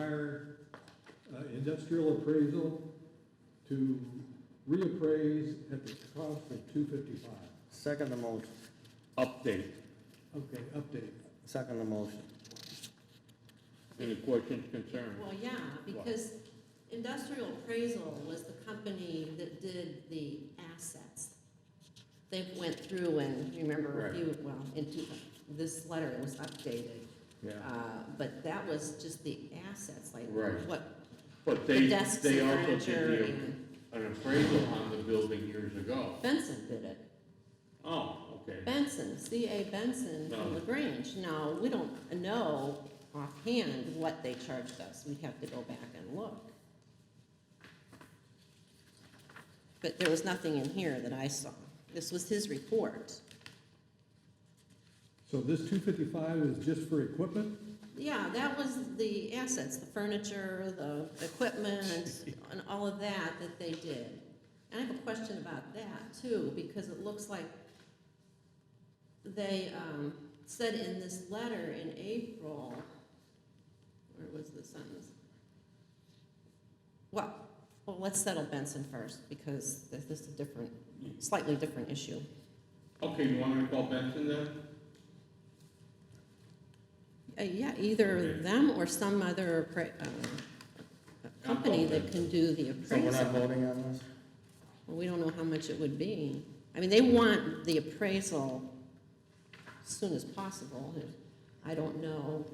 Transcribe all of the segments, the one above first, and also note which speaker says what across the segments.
Speaker 1: hire uh, industrial appraisal to reappraise at the cost of two fifty-five.
Speaker 2: Second the motion. Update.
Speaker 1: Okay, update.
Speaker 2: Second the motion.
Speaker 3: Any questions, concerns?
Speaker 4: Well, yeah, because Industrial Appraisal was the company that did the assets. They went through and, remember, a few, well, into this letter, it was updated.
Speaker 2: Yeah.
Speaker 4: Uh, But that was just the assets, like
Speaker 3: Right.
Speaker 4: what,
Speaker 3: But they,
Speaker 4: desks
Speaker 3: they
Speaker 4: and
Speaker 3: also
Speaker 4: furniture
Speaker 3: did the- an appraisal on the building years ago.
Speaker 4: Benson did it.
Speaker 3: Oh, okay.
Speaker 4: Benson, C.A. Benson from
Speaker 3: No.
Speaker 4: LaGrange. Now, we don't know offhand what they charged us. We'd have to go back and look. But there was nothing in here that I saw. This was his report.
Speaker 1: So this two fifty-five is just for equipment?
Speaker 4: Yeah, that was the assets, the furniture, the equipment, and all of that that they did. And I have a question about that too, because it looks like they um, said in this letter in April, where was the sentence? Well, well, let's settle Benson first, because this this is a different, slightly different issue.
Speaker 3: Okay, you want me to call Benson then?
Speaker 4: Uh, Yeah, either
Speaker 3: Okay.
Speaker 4: them or some other appra- uh, company that can do the
Speaker 2: So we're not
Speaker 4: appraisal.
Speaker 2: voting on this?
Speaker 4: Well, we don't know how much it would be. I mean, they want the appraisal as soon as possible. I don't know,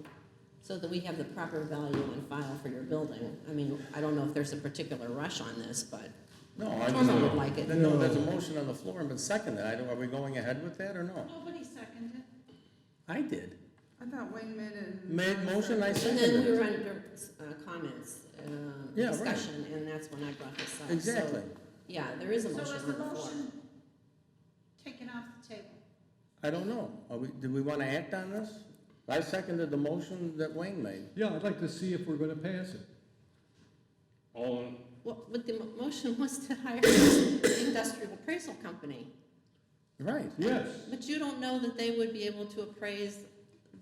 Speaker 4: so that we have the proper value on file for your building. I mean, I don't know if there's a particular rush on this, but
Speaker 2: No, I just.
Speaker 4: Norma would like it.
Speaker 2: Then, no, there's a motion on the floor and been seconded. I don't, are we going ahead with that or no?
Speaker 5: Nobody seconded.
Speaker 2: I did.
Speaker 5: I thought Wayman and.
Speaker 2: Made motion, I
Speaker 4: And then we
Speaker 2: seconded.
Speaker 4: were
Speaker 2: it.
Speaker 4: under uh, comments, uh,
Speaker 2: Yeah, right.
Speaker 4: discussion, and that's when I brought this up. So,
Speaker 2: Exactly.
Speaker 4: Yeah, there is a
Speaker 5: So
Speaker 4: motion
Speaker 5: is
Speaker 4: on the
Speaker 5: the
Speaker 4: floor.
Speaker 5: motion taken off the table?
Speaker 2: I don't know. Are we, do we want to act on this? I seconded the motion that Wayne made.
Speaker 1: Yeah, I'd like to see if we're gonna pass it.
Speaker 3: All, in-
Speaker 4: What, what the mo- motion was to hire an industrial appraisal company,
Speaker 2: Right.
Speaker 1: Yes,
Speaker 4: but you don't know that they would be able to appraise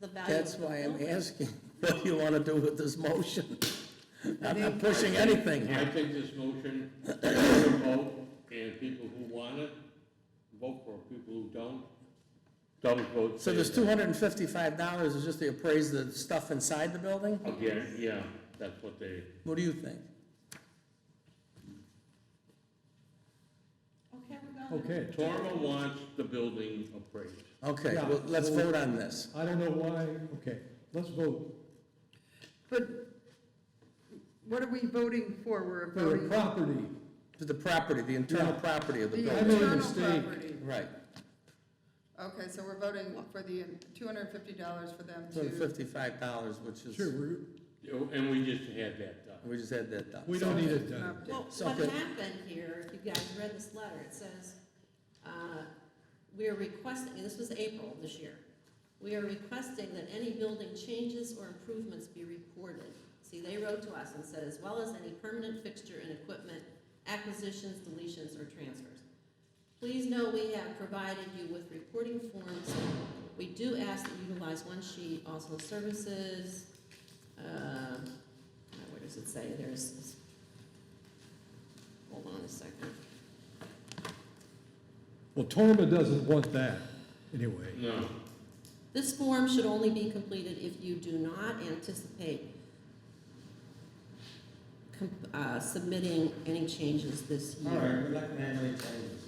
Speaker 4: the value of
Speaker 2: That's
Speaker 4: the
Speaker 2: why I'm
Speaker 4: building.
Speaker 2: asking, what do you want to do with this motion? I'm not pushing anything
Speaker 3: I
Speaker 2: here.
Speaker 3: think this motion, is a vote, and people who want it, vote for it. People who don't, don't vote.
Speaker 2: So this
Speaker 3: say
Speaker 2: two hundred and fifty-five dollars is just to appraise the stuff inside the building?
Speaker 3: that. Again, yeah, that's what they,
Speaker 2: What do you think?
Speaker 5: Okay, we're going.
Speaker 1: okay.
Speaker 3: Torma wants the building appraised.
Speaker 2: Okay,
Speaker 1: Yeah.
Speaker 2: well, let's vote on this.
Speaker 1: I don't know why, okay, let's vote
Speaker 6: But what are we voting for? We're
Speaker 1: for the
Speaker 6: voting
Speaker 1: property.
Speaker 2: To the property, the internal
Speaker 1: Yeah.
Speaker 2: property of the
Speaker 6: the
Speaker 1: I
Speaker 2: building.
Speaker 1: made a
Speaker 6: internal
Speaker 1: mistake.
Speaker 6: property.
Speaker 2: Right,
Speaker 6: Okay, so we're voting for the two hundred and fifty dollars for them
Speaker 2: two hundred and
Speaker 6: to,
Speaker 2: fifty-five dollars, which
Speaker 1: Sure,
Speaker 2: is,
Speaker 1: we're,
Speaker 3: And we just had that done.
Speaker 2: we just had that done.
Speaker 1: we don't need it done.
Speaker 4: Well,
Speaker 2: So
Speaker 4: what
Speaker 2: good.
Speaker 4: happened here, if you guys read this letter, it says, uh, we are requesting, and this was April of this year, we are requesting that any building changes or improvements be reported. See, they wrote to us and said, as well as any permanent fixture and equipment acquisitions, deletions, or transfers. Please know we have provided you with reporting forms. We do ask that you utilize one sheet, also services, uh, where does it say? There's, hold on a second.
Speaker 1: Well, Torma doesn't want that, anyway.
Speaker 3: No,
Speaker 4: This form should only be completed if you do not anticipate com- uh, submitting any changes this year.
Speaker 2: not gonna have any changes.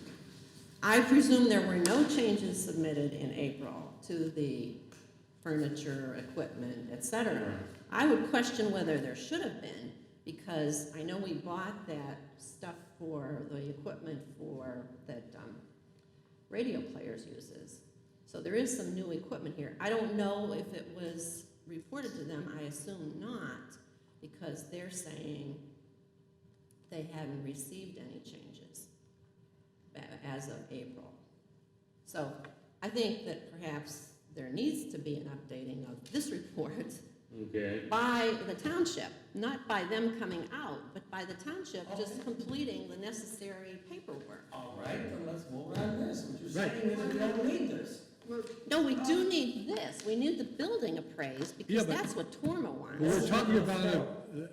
Speaker 4: I presume there were no changes submitted in April to the furniture, equipment, et cetera. I would question whether there should have been, because I know we bought that stuff for, the equipment for, that um, radio players uses. So there is some new equipment here. I don't know if it was reported to them, I assume not, because they're saying they haven't received any changes a- as of April. So I think that perhaps there needs to be an updating of this report
Speaker 3: okay.
Speaker 4: by the township, not by them coming out, but by the township just completing the necessary paperwork.
Speaker 2: All right, then let's vote on this. What you're
Speaker 1: Right.
Speaker 2: is we don't need this.
Speaker 6: Well,
Speaker 4: No, we do need this, we need the building appraised,
Speaker 1: Um, Yeah,
Speaker 4: because
Speaker 1: but-
Speaker 4: that's what Torma
Speaker 1: We're
Speaker 4: wants.
Speaker 1: talking about a-